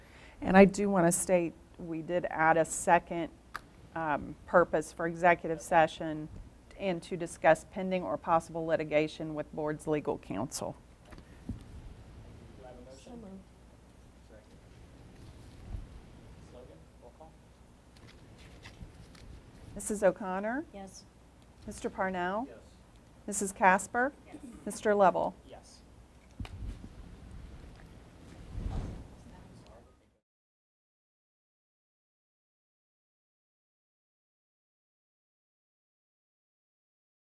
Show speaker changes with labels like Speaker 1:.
Speaker 1: And I do want to state, we did add a second um, purpose for executive session and to discuss pending or possible litigation with board's legal counsel.
Speaker 2: Do I have a motion?
Speaker 3: So moved.
Speaker 2: Second. Logan, roll call?
Speaker 1: Mrs. O'Connor?
Speaker 3: Yes.
Speaker 1: Mr. Parnell?
Speaker 2: Yes.
Speaker 1: Mrs. Casper? Mr. Lovell?